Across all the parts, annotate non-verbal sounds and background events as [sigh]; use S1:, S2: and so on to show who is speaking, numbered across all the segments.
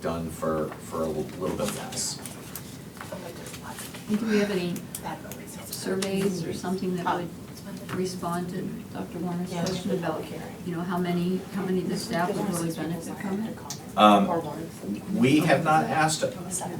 S1: done for, for a little bit less.
S2: And do we have any surveys or something that would respond to Dr. Warner's
S3: Yeah, it's
S2: question
S3: been
S2: about,
S3: public hearing.
S2: you know, how many, how many of the staff would really benefit from it?
S1: Um, We have not asked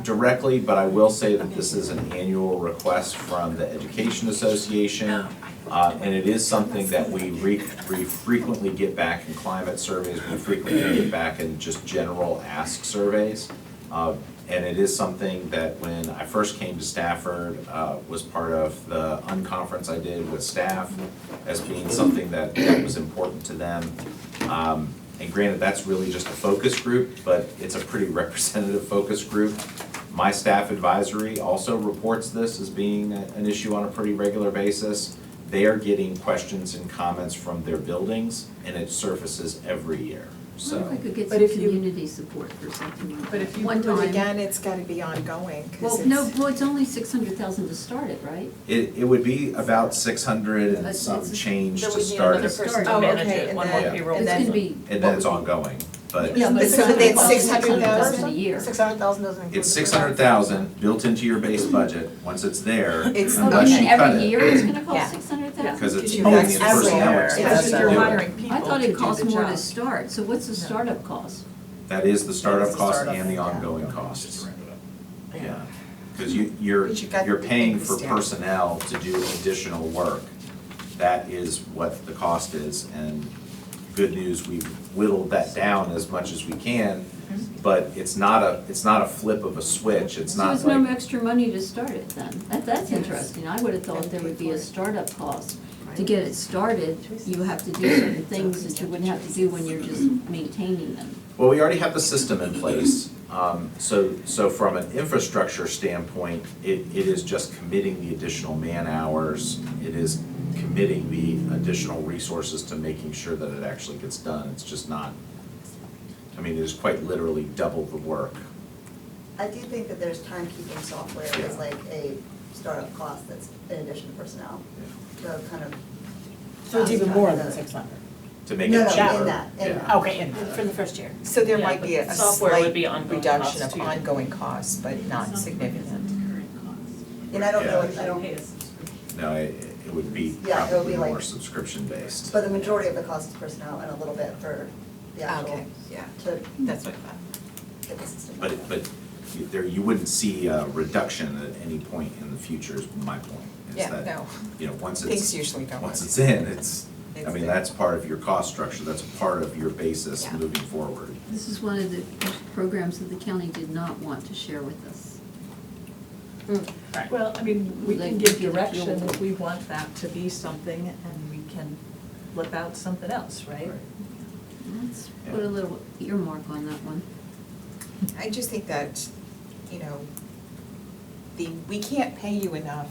S1: directly, but I will say that this is an annual request from the Education Association. Uh, and it is something that we re, we frequently get back in climate surveys, we frequently get back in just general ask surveys. Uh, and it is something that when I first came to Stafford, uh, was part of the unconference I did with staff as being something that, that was important to them. Um, and granted, that's really just a focus group, but it's a pretty [laughs] representative focus group. My staff advisory also reports this as being a- an issue on a pretty regular basis. They are getting questions and comments from their buildings, and it surfaces every year,
S2: I wonder if
S1: so.
S2: we could get
S3: But
S2: some
S3: if you-
S2: community support for something like
S3: But if
S2: that,
S3: you
S2: one
S3: do it
S2: time.
S3: again, it's gotta be ongoing, cause
S2: Well,
S3: it's.
S2: no, well, it's only six hundred thousand to start it, right?
S1: It, it would be about six hundred and
S2: It's-
S1: some
S2: it's-
S1: change to
S4: That we need
S1: start
S4: another
S1: it,
S2: start.
S4: person
S2: Oh,
S4: to manage
S3: okay,
S4: it,
S3: and
S4: one
S3: then-
S4: more
S1: Yeah.
S4: payroll.
S2: It's gonna be.
S1: and then it's ongoing, but
S2: Yeah, but it's
S3: So
S2: gonna
S3: that's
S2: cost
S3: 600,000?
S2: $600,000 A year.
S5: Six hundred thousand doesn't include.
S1: it's
S5: the
S1: six hundred thousand built into your base budget, once it's there,
S3: It's-
S2: Oh,
S1: unless
S2: isn't
S1: you
S2: it
S1: cut it.
S2: every year it's gonna
S4: Yeah.
S2: cost six hundred thousand?
S1: Because it's
S3: Did you
S1: only
S3: guys
S1: the personnel
S3: ever-
S1: expenses
S4: Because
S1: to
S4: you're
S1: do it.
S4: hiring people
S2: I thought
S4: to
S2: it
S4: do
S2: cost
S4: the
S2: more
S4: job.
S2: to start, so what's the startup cost?
S1: That is the startup
S4: That's the
S1: cost
S4: startup,
S1: and the
S4: yeah.
S1: ongoing costs, yeah. Because you, you're,
S3: But you got
S1: you're
S3: the
S1: paying
S3: things
S1: for
S3: down.
S1: personnel to do additional work. That is what the cost is, and good news, we've whittled that down as much as we can, but it's not a, it's not a flip of a switch, it's
S2: So
S1: not
S2: it's no
S1: like,
S2: extra money to start it then? That, that's
S3: Yes.
S2: interesting. I would have thought
S3: And
S2: there
S3: pay
S2: would be
S3: for
S2: a
S3: it.
S2: startup cost. To get it started, you have to do certain things that you wouldn't have to do when you're just maintaining them.
S1: well, we already have the system in place. Um, so, so from an infrastructure standpoint, it, it is just committing the additional man-hours. It is committing the additional resources to making sure that it actually gets done. It's just not, I mean, it is quite literally double the work.
S6: I do think that there's timekeeping software
S1: Yeah.
S6: as like a startup cost that's in addition to personnel, the kind of.
S5: So it's even more than six hundred.
S1: To make
S6: No,
S1: it
S6: no,
S1: cheaper.
S6: in that, in
S1: Yeah.
S6: that.
S5: Okay, and for the first year.
S3: So there
S4: Yeah,
S3: might
S4: but
S3: be a a
S4: software would
S3: slight
S4: be ongoing
S3: reduction
S4: costs
S3: of
S4: too.
S3: ongoing costs, but not significant.
S6: And I don't know,
S1: Yeah.
S6: I don't,
S1: No, it, it would be
S6: Yeah, it would be
S1: probably
S6: like-
S1: more subscription-based.
S6: but the majority of the cost is personnel and a little bit for the
S5: Ah,
S6: actual,
S3: Okay, yeah,
S6: to
S3: that's what I thought.
S6: get the system.
S1: But,
S6: going.
S1: but you- there, you wouldn't see a reduction at any point in the future is my point. is
S3: Yeah,
S1: that,
S3: no.
S1: You know, once
S3: Things
S1: it's,
S3: usually don't.
S1: once it's in, it's, I
S3: It's
S1: mean,
S3: there.
S1: that's part of your cost structure, that's part of your basis
S3: Yeah.
S1: moving forward.
S2: This is one of the programs that the county did not want to share with us.
S4: Hmm. Well, I mean, we
S2: Like,
S4: can give
S2: give it
S4: direction
S2: fuel.
S4: if we want that to be something and we can flip out something else, right?
S2: Let's put a little earmark on that one.
S3: I just think that, you know, the, we can't pay you enough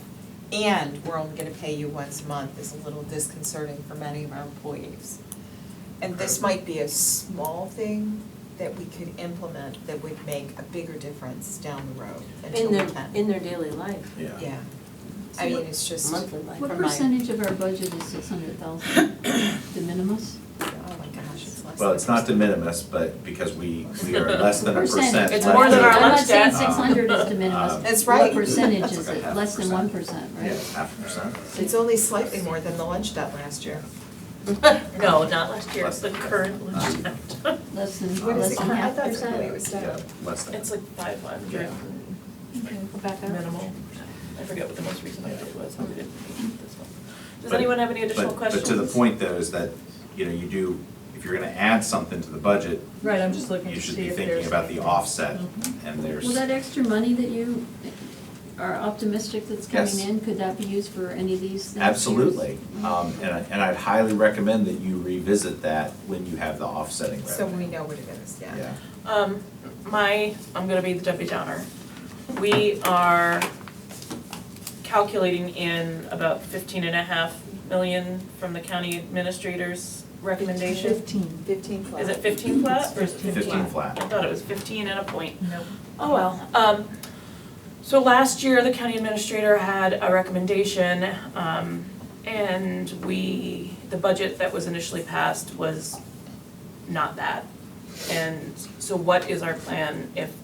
S3: and we're only gonna pay you once a month is a little disconcerting for many of our employees. And this might be a small thing that we could implement that would make a bigger difference down the road until
S7: In
S3: we
S7: their,
S3: can.
S7: in their daily life,
S1: Yeah.
S3: Yeah, I mean, it's just, oh
S7: monthly life.
S2: What
S7: From my-
S2: percentage of our budget is six hundred
S4: [coughs]
S2: thousand? De minimis?
S3: oh my gosh, it's less.
S1: Well,
S3: than
S1: it's not de
S3: percent.
S1: minimis, but because we, we
S4: [laughs]
S1: are less than a percent.
S2: Percentage.
S4: It's
S1: less
S4: more than our
S2: I'm
S4: lunch
S2: not saying
S4: debt.
S2: six hundred is de
S1: Um,
S2: minimis.
S3: That's right.
S2: What percentage is
S1: It's like a
S2: it?
S1: half
S2: Less than
S1: percent.
S2: one percent,
S1: Yeah,
S2: right?
S1: half a percent.
S3: It's only slightly more than the lunch debt last year.
S4: [laughs] No, not last year, it's the
S1: Less.
S4: current lunch debt. [laughs]
S2: Less than,
S1: What is
S2: less
S1: it
S2: than
S1: current?
S2: half
S3: I thought
S2: percent.
S3: it was
S1: Yeah,
S3: down.
S1: less than.
S4: It's like five hundred
S1: Yeah.
S4: minimal. I forget what the most recent update was, how we did this one. Does anyone have any additional
S1: But-
S4: questions?
S1: But to the point though, is that, you know, you do, if you're gonna add something to the budget,
S4: Right, I'm just looking
S1: you
S4: to
S1: should
S4: see
S1: be
S4: if there's. Mm-hmm.
S1: thinking about the offset, and there's.
S2: Well, that extra money that you are optimistic that's
S1: Yes.
S2: coming in, could that be used for any of these things?
S1: Absolutely, um, and I, and I'd highly recommend that you revisit that when you have the offsetting revenue.
S3: So we know what it is,
S1: Yeah,
S4: Um, my, I'm gonna be the Debbie Downer. We are calculating in about fifteen and a half million from the county administrator's recommendation.
S3: Fifteen. Fifteen flat.
S4: Is it fifteen flat or is it fifteen?
S1: fifteen
S4: I
S1: flat,
S4: thought it was fifteen and a point.
S3: No.
S4: Oh, well. Um, so last year, the county administrator had a recommendation, um, and we, the budget that was initially passed was not that. And so what is our plan if